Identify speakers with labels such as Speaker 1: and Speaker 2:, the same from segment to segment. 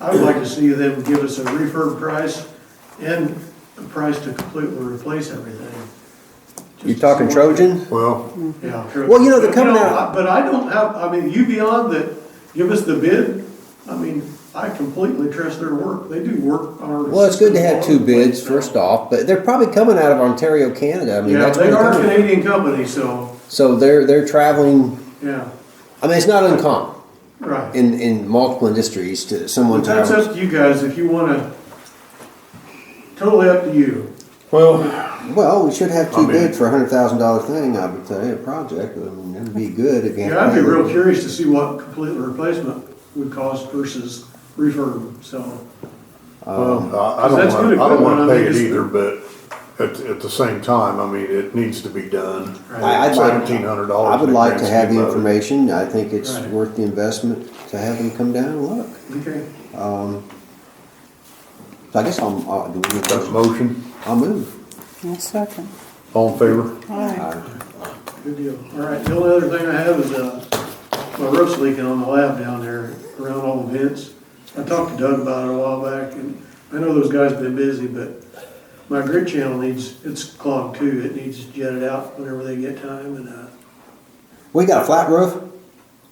Speaker 1: I would like to see them give us a refurb price and a price to completely replace everything.
Speaker 2: You talking Trojan?
Speaker 3: Well,
Speaker 1: Yeah.
Speaker 2: Well, you know, they're coming
Speaker 1: No,
Speaker 2: out-
Speaker 1: I- But I don't have, I mean, you beyond that, give us the bid, I mean, I completely trust their work, they do work on our.
Speaker 2: Well, it's good to have two bids first off, but they're probably coming out of Ontario, Canada. I mean,
Speaker 1: Yeah,
Speaker 2: that's
Speaker 1: they
Speaker 2: where
Speaker 1: are a
Speaker 2: they're coming.
Speaker 1: Canadian company, so,
Speaker 2: So they're they're traveling.
Speaker 1: yeah,
Speaker 2: I mean, it's not uncommon
Speaker 1: right.
Speaker 2: in in multiple industries to someone
Speaker 1: But that's
Speaker 2: travel.
Speaker 1: up to you guys, if you wanna, totally up to you.
Speaker 3: well,
Speaker 2: Well, we should have
Speaker 3: I
Speaker 2: two
Speaker 3: mean-
Speaker 2: bids for a hundred thousand dollar thing. I would say a project. I mean, that'd be good if you. had
Speaker 1: Yeah, I'd be
Speaker 2: to-
Speaker 1: real curious to see what complete replacement would cost versus refurb, so.
Speaker 3: well, uh, I I don't
Speaker 1: That's good
Speaker 3: want, Um, I don't want
Speaker 1: equipment,
Speaker 3: to
Speaker 1: I
Speaker 3: pay it
Speaker 1: think
Speaker 3: either, but at, at the same time, I mean, it needs to be done.
Speaker 2: I- I'd like-
Speaker 3: Seventeen hundred dollars.
Speaker 2: I would like to have the information. I think it's
Speaker 1: Right.
Speaker 2: worth the investment to have them come down and look.
Speaker 1: Okay.
Speaker 2: Um, so I guess I'm. I'll, do we need
Speaker 3: That's a
Speaker 2: to-
Speaker 3: motion,
Speaker 2: I'll move.
Speaker 4: I'll second.
Speaker 3: all in favor?
Speaker 4: Aye.
Speaker 1: Good deal. All right, the only other thing I have is, uh, my roof's leaking on the lab down there around all the vents. I talked to Doug about it a while back and I know those guys have been busy, but my grid channel needs, it's clogged too. It needs jetted out whenever they get time and, uh,
Speaker 2: We got a flat roof.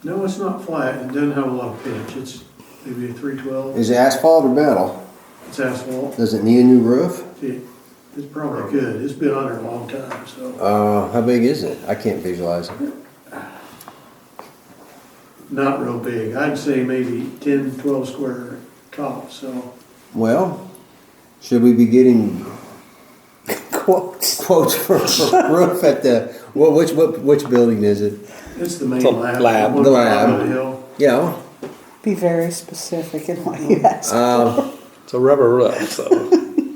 Speaker 1: no, it's not flat. It doesn't have a lot of pitch. It's maybe a three twelve.
Speaker 2: Is it asphalt or metal?
Speaker 1: It's asphalt.
Speaker 2: Does it need a new roof?
Speaker 1: It- It's probably good. It's been on there a long time, so.
Speaker 2: Uh, how big is it? I can't visualize it.
Speaker 1: Not real big. I'd say maybe ten, twelve square top, so.
Speaker 2: Well, should we be getting
Speaker 4: Quotes.
Speaker 2: quotes for a roof at the, well, which, what, which building is it?
Speaker 1: It's the main
Speaker 5: The
Speaker 1: lab.
Speaker 5: lab.
Speaker 1: one
Speaker 2: The
Speaker 1: on
Speaker 2: lab.
Speaker 1: the hill.
Speaker 2: Yeah,
Speaker 4: Be very specific in what you ask.
Speaker 2: um,
Speaker 5: It's a rubber roof, so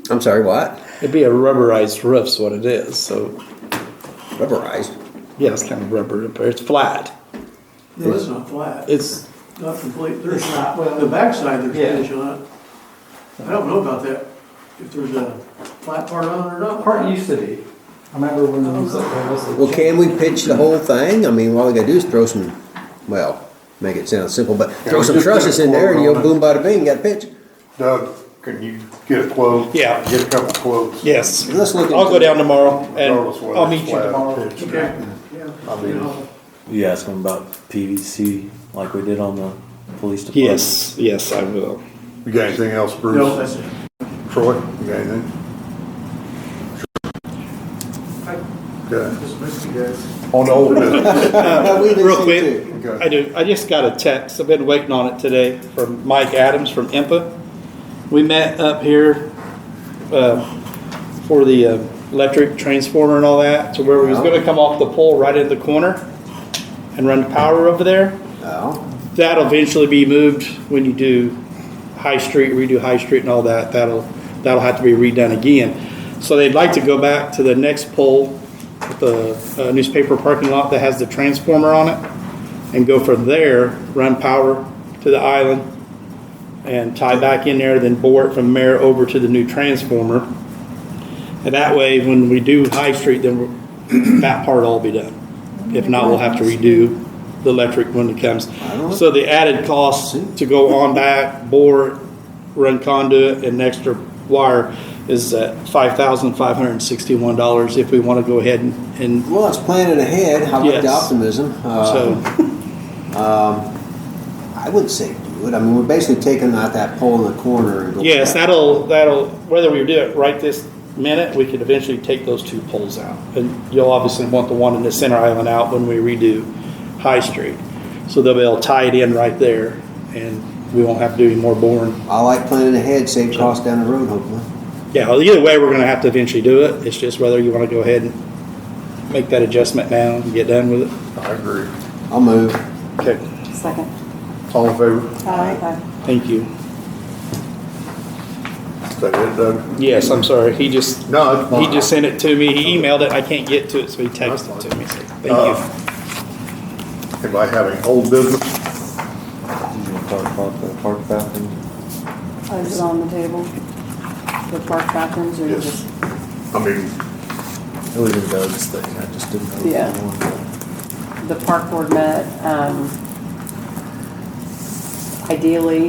Speaker 2: I'm sorry, what?
Speaker 5: it'd be a rubberized roof's what it is. So
Speaker 2: Rubberized.
Speaker 5: yeah, it's kind of rubber, but it's flat.
Speaker 1: No, it's not flat.
Speaker 5: It's
Speaker 1: Not complete. There's not, well, the backside, there's
Speaker 5: Yeah.
Speaker 1: finish on it. I don't know about that, if there's a flat part on it or not.
Speaker 6: Part used to be. I remember when it was like, there was a-
Speaker 2: Well, can we pitch the whole thing? I mean, all we gotta do is throw some, well, make it sound simple, but throw
Speaker 3: we
Speaker 2: some
Speaker 3: just get a
Speaker 2: trusses in there and
Speaker 3: quote
Speaker 2: you'll
Speaker 3: on
Speaker 2: boom bada bing, got a pitch.
Speaker 3: Doug, can you get a quote?
Speaker 5: Yeah.
Speaker 3: Get a couple quotes.
Speaker 5: yes.
Speaker 2: Let's look
Speaker 5: I'll
Speaker 2: into
Speaker 5: go down tomorrow
Speaker 3: Regardless
Speaker 5: and
Speaker 3: whether it's
Speaker 5: I'll meet you
Speaker 3: flat or
Speaker 5: tomorrow.
Speaker 3: pitched.
Speaker 1: Okay, yeah.
Speaker 3: I mean-
Speaker 1: You know,
Speaker 7: You ask them about PVC like we did on the police department?
Speaker 5: Yes, yes, I will.
Speaker 3: You got anything else, Bruce?
Speaker 1: No, that's it.
Speaker 3: Troy, you got anything? Okay,
Speaker 1: Just missed you guys.
Speaker 3: on the old business,
Speaker 2: Uh, we didn't
Speaker 5: Real
Speaker 2: see
Speaker 5: quick.
Speaker 2: two.
Speaker 3: Okay.
Speaker 5: I do. I just got a text. I've been waiting on it today from Mike Adams from IMPA. We met up here uh, for the uh, electric transformer and all that. So where we was going to come off the pole right in the corner and run power over there.
Speaker 2: Oh,
Speaker 5: That'll eventually be moved when you do High Street, redo High Street and all that. That'll, that'll have to be redone again. So they'd like to go back to the next pole, the uh, newspaper parking lot that has the transformer on it, and go from there, run power to the island, and tie back in there, then bore it from there over to the new transformer. And that way, when we do High Street, then we're- that part will all be done. If not, we'll have to redo the electric when it comes. So the added cost to go on back, bore, run conduit, and extra wire is at five thousand five hundred and sixty-one dollars if we want to go ahead and, and
Speaker 2: well, it's planning ahead. I like the
Speaker 5: Yes.
Speaker 2: optimism. Uh,
Speaker 5: so,
Speaker 2: I would say do it. I mean, we're basically taking out that pole in the corner and go.
Speaker 5: yes, that'll, that'll, whether we do it right this minute, we could eventually take those two poles out. And you'll obviously want the one in the center island out when we redo High Street. So they'll be able to tie it in right there, and we won't have to do any more boring.
Speaker 2: I like planning ahead, save costs down the road, hopefully.
Speaker 5: Yeah, well, either way, we're gonna have to eventually do it. It's just whether you wanna go ahead and make that adjustment now and get done with it.
Speaker 3: I agree,
Speaker 2: I'll move.
Speaker 5: Okay.
Speaker 4: Second.
Speaker 3: all in favor,
Speaker 4: Aye.
Speaker 5: Thank you.
Speaker 3: is that it, Doug?
Speaker 5: Yes, I'm sorry. He just,
Speaker 3: No, it's fine.
Speaker 5: he just sent it to me. He emailed it. I can't get to it, so he texted it to me. Uh, So, Thank
Speaker 3: Anybody have any old business?
Speaker 7: You wanna talk about the park bathroom?
Speaker 4: Oh, Is it on the table? The park bathrooms or
Speaker 3: Yes.
Speaker 4: just?
Speaker 3: I mean,
Speaker 7: It was in Doug's thing, I just didn't know. if you
Speaker 4: Yeah.
Speaker 7: wanted to-
Speaker 4: The park board met, um, ideally,